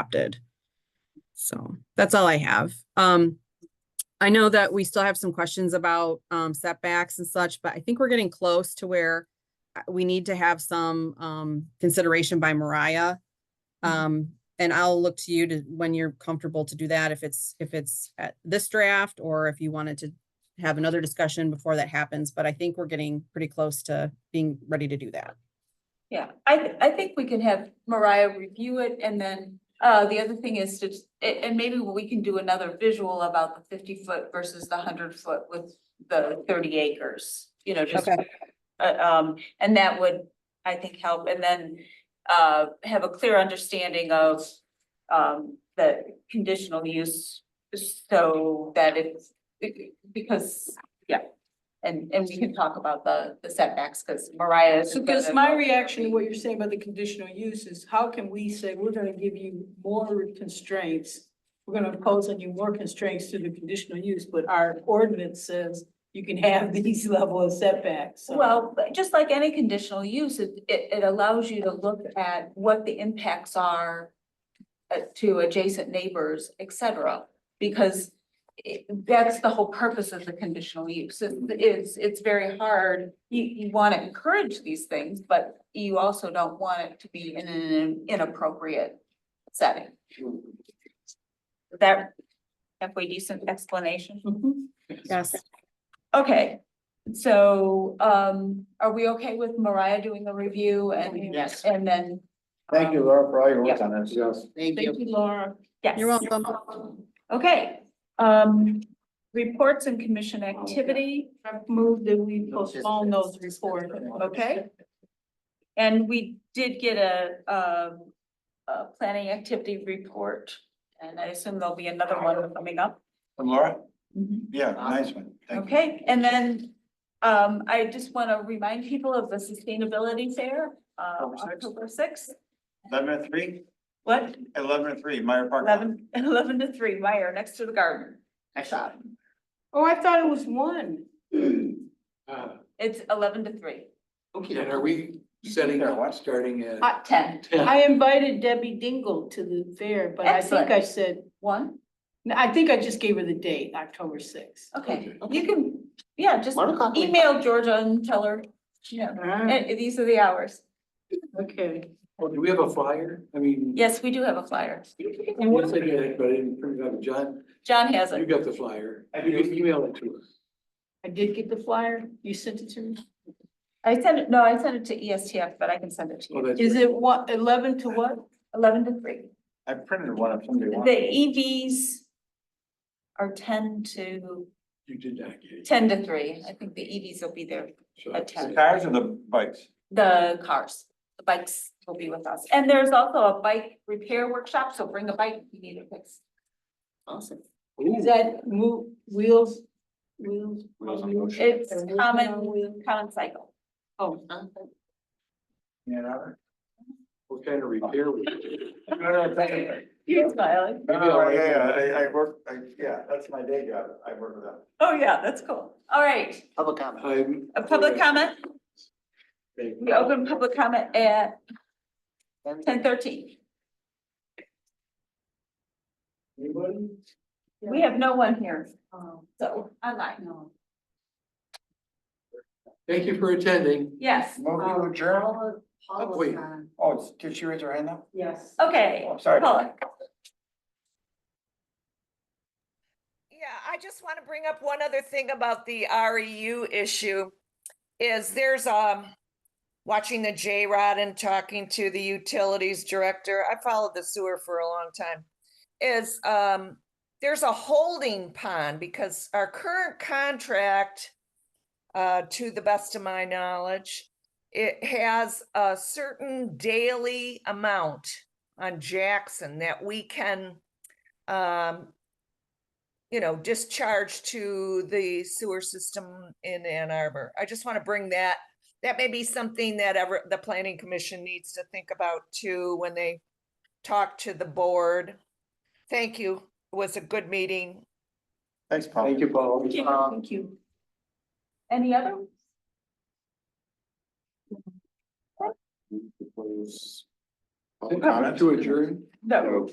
adopted. So that's all I have. Um, I know that we still have some questions about um setbacks and such, but I think we're getting close to where uh, we need to have some um consideration by Mariah. Um, and I'll look to you to, when you're comfortable to do that, if it's, if it's at this draft or if you wanted to have another discussion before that happens, but I think we're getting pretty close to being ready to do that. Yeah, I, th- I think we can have Mariah review it and then, uh, the other thing is to, and, and maybe we can do another visual about the fifty foot versus the hundred foot with the thirty acres, you know, just. Okay. Uh, um, and that would, I think, help and then, uh, have a clear understanding of, um, the conditional use. So that it's, be- because, yeah, and, and we can talk about the, the setbacks, because Mariah is. Because gonna- my reaction to what you're saying about the conditional use is, how can we say we're gonna give you more constraints? We're gonna impose on you more constraints through the conditional use, but our ordinance says you can have these level of setbacks, so. Well, but just like any conditional use, it, it, it allows you to look at what the impacts are uh, to adjacent neighbors, et cetera, because i- that's the whole purpose of the conditional use. It- It's, it's very hard. You, you want to encourage these things, but you also don't want it to be in an inappropriate setting. Is That, halfway decent explanation? Mhm. Yes. Okay, so um are we okay with Mariah doing the review and Yes. and then? Thank you, Laura, for all your work Yeah. on this. Yes. Thank you, Laura. Yes. You're welcome. Okay, um reports and commission activity, Oh, I've moved that we postpone those reports, okay? and we did get a um a planning activity report, and I assume there'll be another one coming up. From Laura? Mm-hmm. Yeah, nice one. Thank you. Okay, and then um I just want to remind people of the sustainability fair, Oh, uh October October sixth. sixth. Eleven to three, What? eleven to three, Meyer Park. Eleven, eleven to three, Meyer, next to the garden. shop. Oh, I thought it was one. Ah, It's eleven to three. Okay, and are we setting There, up, what? starting at Hot ten. ten? I invited Debbie Dingle to the fair, but I think I said, One, no, I think I just gave her the date, October sixth. okay, Okay. you can, yeah, just One o'clock. email Georgia and tell her, you know, Alright, eh, these are the hours. okay. Oh, do we have a flyer? I mean. Yes, we do have a flyer. And once I get it, but I didn't print it out, John, John has you it. got the flyer. You email it to us. I did get the flyer. You sent it to me. I sent it, no, I sent it to E ESTF, but I can send it to Oh, you. that's Is right. it what, eleven to what? Eleven to three. I printed one if somebody The wants. EVs are ten to, You did not get it. ten to three. I think the EVs will be there. So a ten. The cars or the bikes? the cars, the bikes will be with us. And there's also a bike repair workshop, so bring a bike if you need it fixed. Awesome. Ooh, Is that move, wheels, wheels? Wheels on motion. It's Or wheels common, on wheels? common cycle. Oh, Yeah, hour. What kind of repair? we do? You're smiling. Yeah, Oh, yeah, I, I work, I, yeah, that's my day job. I work with them. Oh, yeah, that's cool. All right, Public comment. I'm. a public comment. We open public comment at ten thirteen. Anybody? We have no one here, um, so online. No. Thank you for attending. Yes, Move to adjourn? Oh, Wait, Oh, it's- did she raise her hand now? yes. okay, Oh, I'm sorry. Paula. Yeah, I just want to bring up one other thing about the REU issue is there's um watching the J-Rod and talking to the utilities director. I followed the sewer for a long time. Is um there's a holding pond because our current contract uh to the best of my knowledge, it has a certain daily amount on Jackson that we can um you know, discharge to the sewer system in Ann Arbor. I just want to bring that, that may be something that ever, the planning commission needs to think about too, when they talk to the board. Thank you. It was a good meeting. Thanks, Paul. Um, thank you, Paul. Thank you. Any other? To adjourn? No.